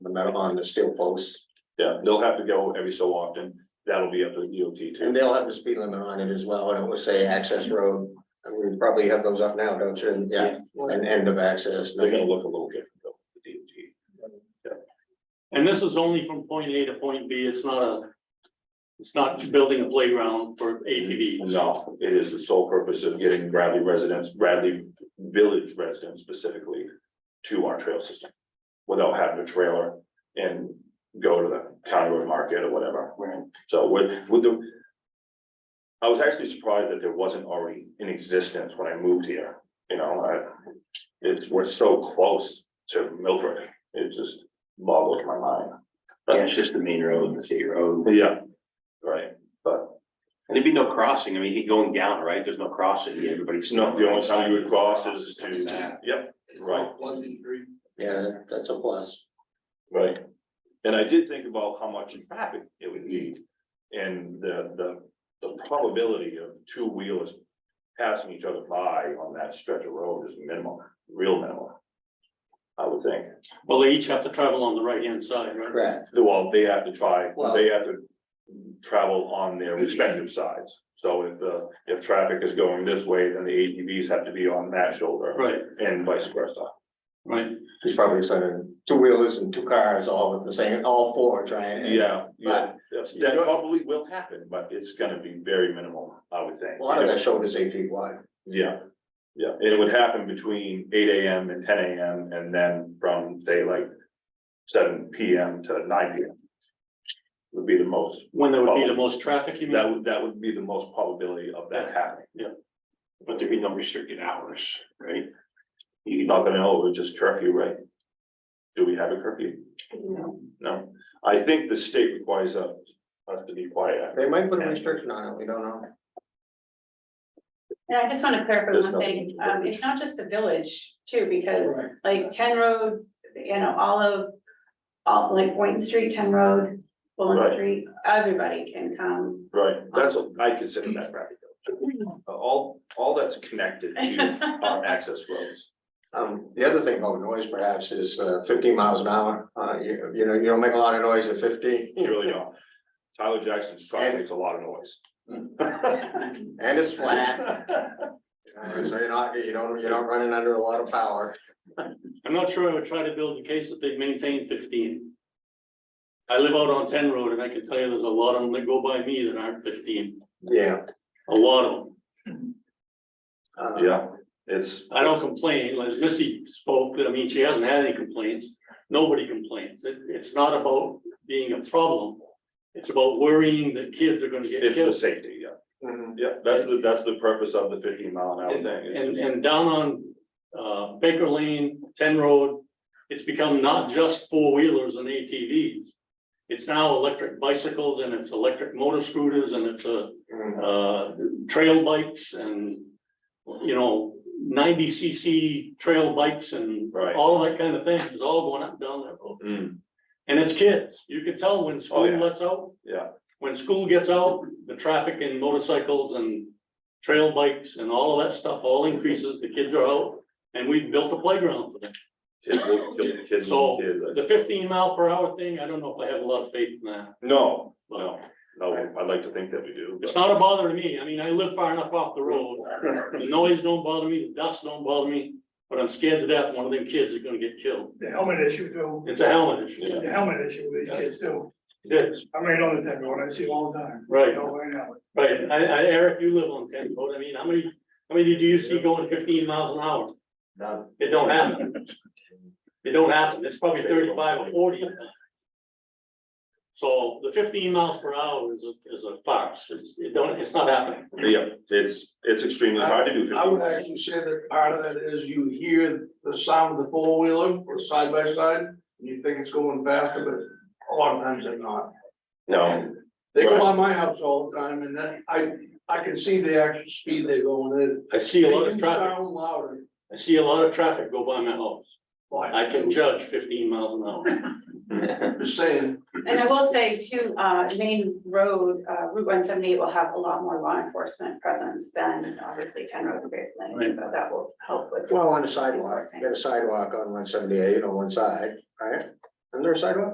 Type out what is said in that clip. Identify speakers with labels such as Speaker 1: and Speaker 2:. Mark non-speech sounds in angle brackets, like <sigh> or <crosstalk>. Speaker 1: metal on the steel posts,
Speaker 2: Yeah, they'll have to go every so often. That'll be up to the DOT
Speaker 1: and
Speaker 2: too.
Speaker 1: they'll have the speed limit on it as well, and it would say access road. I mean, you probably have those up now, don't you? And, Yeah, and end of access.
Speaker 2: They're gonna look a little different though, the DOT.
Speaker 3: And this is only from point A to point B, it's not a, it's not building a playground for ATV.
Speaker 2: No, it is the sole purpose of getting Bradley residents, Bradley Village residents specifically to our trail system. Without having a trailer and go to the county road market or whatever. So with, with the. I was actually surprised that there wasn't already in existence when I moved here, you know, I. It's, we're so close to Milford, it just boggles my mind.
Speaker 4: Yeah, it's just the main road, the state road.
Speaker 2: Yeah, right, but.
Speaker 4: And there'd be no crossing. I mean, you going down, right? There's no crossing. Everybody's.
Speaker 2: It's not the only time you would cross is to, yep, right,
Speaker 1: Yeah, that's a plus.
Speaker 2: right. And I did think about how much traffic it would need. And the, the, the probability of two wheelers passing each other by on that stretch of road is minimal, real minimal. I would think,
Speaker 3: Well, they each have to travel on the right-hand side, right?
Speaker 1: Correct.
Speaker 2: well, they have to try,
Speaker 1: Well-
Speaker 2: they have to travel on their respective sides. So if the, if traffic is going this way, then the ATVs have to be on that shoulder
Speaker 3: Right,
Speaker 2: and vice versa.
Speaker 3: right.
Speaker 1: He's probably saying two wheelers and two cars all at the same, all four trying.
Speaker 2: Yeah, yeah,
Speaker 1: But-
Speaker 2: that's- that probably will happen, but it's gonna be very minimal, I would think.
Speaker 1: A lot of that shoulder is eight feet wide.
Speaker 2: Yeah, yeah, it would happen between eight AM and ten AM and then from say like seven PM to nine PM. Would be the most,
Speaker 3: When there would be the most traffic, you
Speaker 2: that
Speaker 3: mean?
Speaker 2: would, that would be the most probability of that happening.
Speaker 4: But there'd be no restricted hours, right?
Speaker 2: You're not gonna know, it's just curfew, right? Do we have a curfew? No, I think the state requires us, us to be quiet. after
Speaker 1: They might put a restriction on it, we don't know.
Speaker 5: And I just want to clarify
Speaker 2: There's
Speaker 5: one
Speaker 2: no-
Speaker 5: thing, um, it's not just the village too, because like Ten Road, you know, all of. All like Boynton Street, Ten Road,
Speaker 2: Right.
Speaker 5: Bullen Street, everybody can come.
Speaker 2: Right, that's, what I consider
Speaker 1: Mm.
Speaker 2: that rapid. though. All, all that's connected to our access roads.
Speaker 1: Um, the other thing about noise perhaps is uh, fifteen miles an hour, uh, you, you know, you don't make a lot of noise at fifteen.
Speaker 2: You really don't. Tyler Jackson's truck
Speaker 1: And-
Speaker 2: makes a lot of
Speaker 3: <laughs>
Speaker 2: noise.
Speaker 1: <laughs> And it's flat, you know, so you're not, you don't, you're not running under a lot of power.
Speaker 3: I'm not sure I would try to build a case that they maintain fifteen. I live out on Ten Road and I can tell you there's a lot of them that go by me that aren't fifteen,
Speaker 1: Yeah.
Speaker 3: a lot of them.
Speaker 1: uh,
Speaker 2: Yeah, it's,
Speaker 3: I don't complain, as Missy spoke, I mean, she hasn't had any complaints, nobody complains, it, it's not about being a problem. It's about worrying that kids are gonna get
Speaker 2: it's the
Speaker 3: killed.
Speaker 2: safety, yeah.
Speaker 1: mhm.
Speaker 2: Yeah, that's the, that's the purpose of the fifteen mile an hour
Speaker 3: And,
Speaker 2: thing. It's
Speaker 3: and,
Speaker 2: just-
Speaker 3: and down on, uh, Baker Lane, Ten Road, it's become not just four wheelers and ATVs. It's now electric bicycles and it's electric motor scooters and it's, uh,
Speaker 1: Mhm.
Speaker 3: uh, trail bikes and, you know, ninety cc trail bikes and
Speaker 2: Right.
Speaker 3: all that kind of thing is all going up and down that road.
Speaker 2: Mm,
Speaker 3: And it's kids. You could tell when
Speaker 2: Oh,
Speaker 3: school
Speaker 2: yeah.
Speaker 3: lets out,
Speaker 2: yeah,
Speaker 3: when school gets out, the traffic and motorcycles and trail bikes and all of that stuff all increases. The kids are out and we've built a playground for them.
Speaker 2: kids will kill kids.
Speaker 3: So,
Speaker 2: kids,
Speaker 3: The fifteen mile per hour thing, I don't know if I have a lot of faith in that.
Speaker 2: No,
Speaker 3: But
Speaker 2: no, no, I'd like to think that we do.
Speaker 3: it's
Speaker 2: but-
Speaker 3: not a bother to me. I mean, I live far enough off the road. The noise don't bother me, the dust don't bother me, but I'm scared to death one of them kids is gonna get killed.
Speaker 6: the helmet issue too,
Speaker 3: It's a helmet issue.
Speaker 6: the helmet issue with these kids too.
Speaker 3: It is,
Speaker 6: I'm right on the ten road, I see it all the time.
Speaker 3: right,
Speaker 6: Don't wear a helmet.
Speaker 3: right. I, I, Eric, you live on ten road. I mean, how many, how many do you see going fifteen miles an hour?
Speaker 2: None.
Speaker 3: It don't happen. It don't happen. It's probably thirty-five or forty. of them. So the fifteen miles per hour is a, is a farce. It's, it don't, it's not happening.
Speaker 2: Yeah, it's, it's extremely hard to do fifteen.
Speaker 7: I would actually say that part of that is you hear the sound of the four wheeler or side by side, and you think it's going faster, but a lot of times they're not.
Speaker 2: No,
Speaker 7: They
Speaker 2: Right.
Speaker 7: go on my house all the time and then I, I can see the actual speed they're going in.
Speaker 3: I see a lot
Speaker 7: They
Speaker 3: of
Speaker 7: do
Speaker 3: traffic.
Speaker 7: Sound louder.
Speaker 3: I see a lot of traffic go by my house.
Speaker 7: Why?
Speaker 3: I can judge fifteen miles an hour.
Speaker 7: I'm Just saying,
Speaker 5: And I will say too, uh, Main Road, uh, Route one seventy eight will have a lot more law enforcement presence than obviously Ten Road and Great Plains, so that will help with.
Speaker 1: Well, on the sidewalk, you got a sidewalk on one seventy-eight on one side, right? Is there a sidewalk?